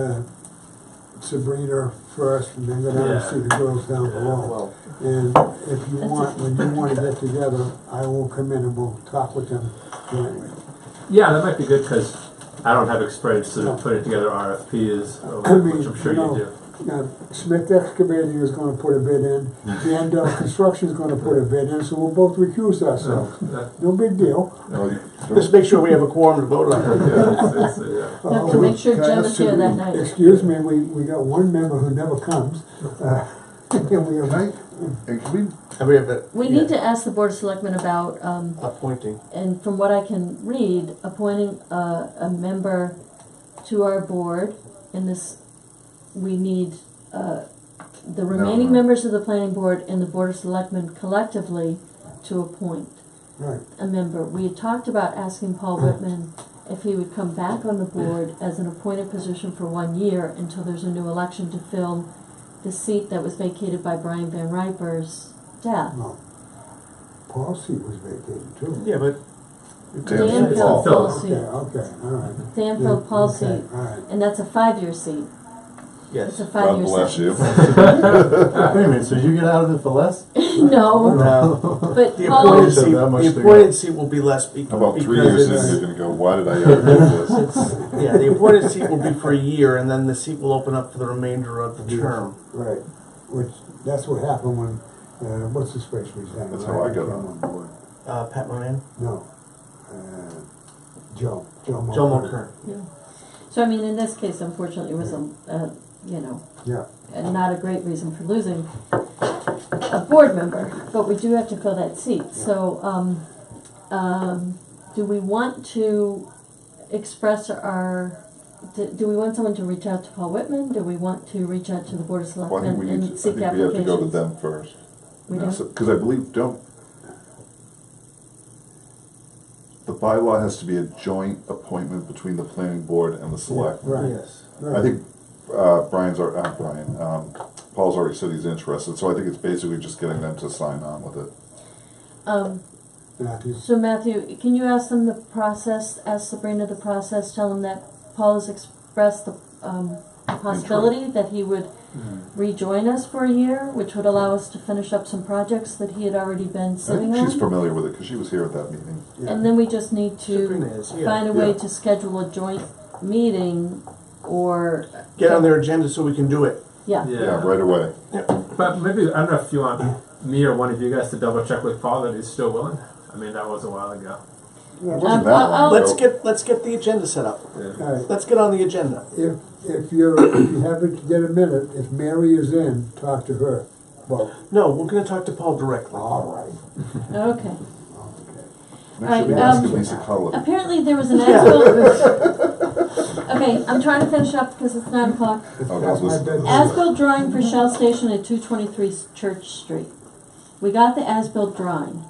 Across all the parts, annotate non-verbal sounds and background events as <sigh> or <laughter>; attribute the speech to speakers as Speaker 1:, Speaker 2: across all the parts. Speaker 1: uh, Sabrina first, and then go down and
Speaker 2: Yeah.
Speaker 1: see the girls down
Speaker 2: Yeah,
Speaker 1: below.
Speaker 3: Well,
Speaker 1: And if you want, when you wanna get together, I will come in and we'll talk with them jointly.
Speaker 2: Yeah, that might be good because I don't have experience sort of
Speaker 1: No.
Speaker 2: putting together RFPs, or
Speaker 1: I mean,
Speaker 2: uh, which I'm sure
Speaker 1: you know,
Speaker 2: you do.
Speaker 1: Now, Smith Excavating is gonna put a bid
Speaker 2: <laughs>
Speaker 1: in, and uh, Construction's gonna put a bid in, so we'll both recuse ourselves.
Speaker 2: Yeah, <laughs>
Speaker 1: No big deal.
Speaker 3: uh, Just make sure we have a quorum to vote on.
Speaker 2: yeah, it's- it's, uh,
Speaker 1: Uh,
Speaker 4: You have to
Speaker 1: we-
Speaker 4: make sure
Speaker 3: Can I
Speaker 4: Jen is
Speaker 3: ask
Speaker 4: here that
Speaker 3: you-
Speaker 4: night.
Speaker 1: Excuse me, we, we got one member who never
Speaker 2: <laughs>
Speaker 1: comes. uh, <laughs> And we have,
Speaker 5: Right? And can we-
Speaker 3: Have we have a?
Speaker 4: We need to ask the Board of Selectmen about, um,
Speaker 3: Appointing.
Speaker 4: and from what I can read, appointing a, a member to our board. In this, we need, uh, the remaining
Speaker 5: no.
Speaker 4: members of the planning board and the Board of Selectmen collectively to appoint
Speaker 1: right,
Speaker 4: a member. We had talked about asking Paul Whitman if he would come back on the board as an appointed position for one year until there's a new election to fill the seat that was vacated by Brian Van Riper's death.
Speaker 1: no. Paul's seat was vacated too.
Speaker 3: Yeah, but.
Speaker 5: Dan
Speaker 2: it's the Phil.
Speaker 4: Phil. Phil.
Speaker 1: Okay, okay, all right.
Speaker 4: Danfield Paul
Speaker 1: Okay,
Speaker 4: seat,
Speaker 1: All right.
Speaker 4: and that's a five-year seat.
Speaker 3: Yes.
Speaker 4: It's a
Speaker 5: God
Speaker 4: five-year seat.
Speaker 5: bless you.
Speaker 6: Wait a minute, so you get out of it for less?
Speaker 4: <laughs>
Speaker 3: <laughs>
Speaker 4: No,
Speaker 3: No.
Speaker 4: but
Speaker 3: The
Speaker 4: Paul,
Speaker 3: appointed
Speaker 6: Said
Speaker 3: seat,
Speaker 6: that much
Speaker 3: the
Speaker 6: to
Speaker 3: appointed seat will be less be- because
Speaker 5: About three years in,
Speaker 3: it's-
Speaker 5: you're gonna go, why did I ever do this?
Speaker 3: it's- Yeah, the appointed seat will be for a year and then the seat will open up for the remainder of the term.
Speaker 1: Right, which, that's what happened when, uh, what's his face resigned?
Speaker 5: That's how I got
Speaker 1: came
Speaker 5: on.
Speaker 1: board.
Speaker 3: Uh, Pat Moran,
Speaker 1: No, uh, Joe, Joe Mulcair.
Speaker 3: Joe Mulcair.
Speaker 4: so I mean, in this case, unfortunately, it was a, uh, you know,
Speaker 1: Yeah,
Speaker 4: and not a great reason for losing a board member, but we do have to fill that seat. So, um, um, do we want to express our, do, do we want someone to reach out to Paul Whitman? Do we want to reach out to the Board of
Speaker 5: Well, I think we need to,
Speaker 4: Selectmen
Speaker 5: I
Speaker 4: and
Speaker 5: think
Speaker 4: seek
Speaker 5: we have to go to
Speaker 4: applications?
Speaker 5: them first.
Speaker 4: We
Speaker 5: And
Speaker 4: do?
Speaker 5: so- Cause I believe, don't. The bylaw has to be a joint appointment between the planning board and the select.
Speaker 1: Right.
Speaker 3: Yes.
Speaker 5: I
Speaker 1: right.
Speaker 5: think, uh, Brian's, al- uh, Brian, um, Paul's already said he's interested, so I think it's basically just getting them to sign on with it.
Speaker 4: Um,
Speaker 1: Matthews.
Speaker 4: so Matthew, can you ask them the process, ask Sabrina the process, tell them that Paul has expressed the, um, the possibility that he would rejoin us for a year, which would allow us to finish up some projects that he had already been
Speaker 5: I
Speaker 4: sitting
Speaker 5: think she's
Speaker 4: on.
Speaker 5: familiar with it, cause she was here at that meeting.
Speaker 1: Yeah.
Speaker 4: And then we just need
Speaker 3: Sabrina
Speaker 4: to
Speaker 3: is, yeah.
Speaker 4: find a way
Speaker 5: Yeah.
Speaker 4: to schedule a joint meeting or,
Speaker 3: Get on their agenda so we can do it.
Speaker 4: yeah,
Speaker 5: Yeah, right away.
Speaker 2: But maybe, I don't know if you want me or one of you guys to double check with Paul that he's still willing. I mean, that was a while ago.
Speaker 5: Wasn't
Speaker 4: Um, I'll-
Speaker 5: that long
Speaker 4: I'll-
Speaker 5: ago.
Speaker 3: Let's get, let's get the agenda set up.
Speaker 2: Yeah.
Speaker 1: All right,
Speaker 3: Let's get on the agenda.
Speaker 1: if, if you're, if you haven't, get a minute, if Mary is in, talk to her. Well,
Speaker 3: No, we're gonna talk to Paul directly.
Speaker 1: all right,
Speaker 4: okay.
Speaker 1: okay.
Speaker 5: Make sure
Speaker 4: Alright,
Speaker 5: we
Speaker 4: um,
Speaker 5: ask Lisa Cullen.
Speaker 4: Apparently there
Speaker 3: <laughs>
Speaker 4: was an ASBIL. Okay, I'm trying to finish up because it's nine o'clock.
Speaker 5: Oh,
Speaker 1: That's
Speaker 5: that's
Speaker 1: my
Speaker 5: Lisa-
Speaker 1: bad.
Speaker 4: As-built drawing for Shell Station at two twenty-three Church Street. We got the as-built drawing.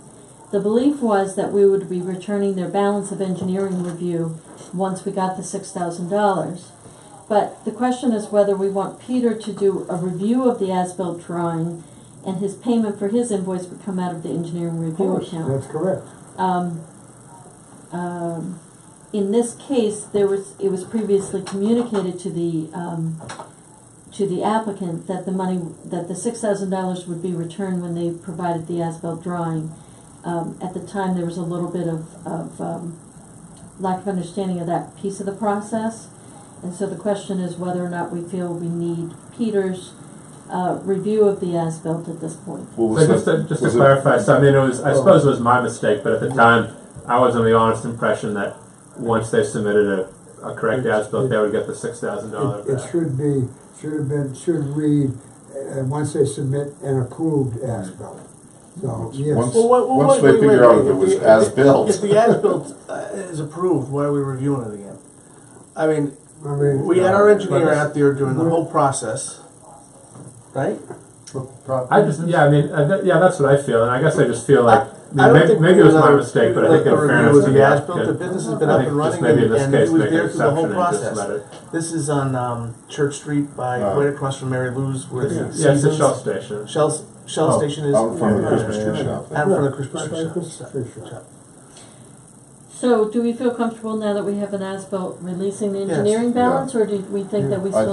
Speaker 4: The belief was that we would be returning their balance of engineering review once we got the six thousand dollars. But the question is whether we want Peter to do a review of the as-built drawing and his payment for his invoice would come out of the engineering
Speaker 1: Of
Speaker 4: review
Speaker 1: course,
Speaker 4: account.
Speaker 1: that's correct.
Speaker 4: Um, um, in this case, there was, it was previously communicated to the, um, to the applicant that the money, that the six thousand dollars would be returned when they provided the as-built drawing. Um, at the time, there was a little bit of, of, um, lack of understanding of that piece of the process. And so the question is whether or not we feel we need Peter's, uh, review of the as-built at this point.
Speaker 5: What was
Speaker 2: So just
Speaker 5: that?
Speaker 2: to, just to
Speaker 5: Was it-
Speaker 2: clarify, so I mean, it was,
Speaker 1: Oh.
Speaker 2: I suppose it was my mistake, but at the time, I was on the honest impression that once they submitted a, a correct
Speaker 1: It's-
Speaker 2: as-built, they would get the six thousand dollar
Speaker 1: It, it
Speaker 2: back.
Speaker 1: should be, should have been, should read, uh, once they submit an approved as-built. So, yes,
Speaker 5: Once-
Speaker 3: Well, wait, wait,
Speaker 5: Once
Speaker 3: wait,
Speaker 5: they
Speaker 3: wait,
Speaker 5: figure
Speaker 3: wait,
Speaker 5: out if it was
Speaker 3: if-
Speaker 5: as
Speaker 3: If
Speaker 5: built,
Speaker 3: the as-built uh, is approved, why are we reviewing it again? I mean,
Speaker 1: I mean. uh,
Speaker 3: we had our engineer out there doing the whole process, right?
Speaker 2: I just, yeah, I mean, uh, th- yeah, that's what I feel, and I guess I just feel like, I
Speaker 3: I
Speaker 2: mean,
Speaker 3: don't
Speaker 2: maybe,
Speaker 3: think
Speaker 2: maybe
Speaker 3: we
Speaker 2: it was my
Speaker 3: another-
Speaker 2: mistake, but I
Speaker 3: like
Speaker 2: think in
Speaker 3: a review
Speaker 2: fairness
Speaker 3: of
Speaker 2: to
Speaker 3: the
Speaker 2: the
Speaker 3: as-built, the
Speaker 2: applicant,
Speaker 3: business has been
Speaker 2: I
Speaker 3: up and
Speaker 2: think just
Speaker 3: running
Speaker 2: maybe in
Speaker 3: and,
Speaker 2: this
Speaker 3: and he
Speaker 2: case,
Speaker 3: was
Speaker 2: make an
Speaker 3: there through the whole
Speaker 2: exception and just
Speaker 3: process.
Speaker 2: let it.
Speaker 3: This is on, um, Church Street by,
Speaker 5: Uh,
Speaker 3: right across from Mary Lou's where the
Speaker 2: Yeah, it's a Shell
Speaker 3: Seasons,
Speaker 2: Station.
Speaker 3: Shell's, Shell
Speaker 2: Oh,
Speaker 3: Station is.
Speaker 5: out in front of the
Speaker 3: Yeah.
Speaker 5: Christmas tree shop.
Speaker 3: Out in front of the
Speaker 1: Right,
Speaker 3: Christmas
Speaker 1: right by
Speaker 3: tree
Speaker 1: Christmas
Speaker 3: shop.
Speaker 1: tree shop.
Speaker 4: So do we feel comfortable now that we have an as-built releasing the
Speaker 3: Yes.
Speaker 4: engineering
Speaker 5: Yeah.
Speaker 4: balance, or do we think that we
Speaker 5: Yeah. I
Speaker 4: still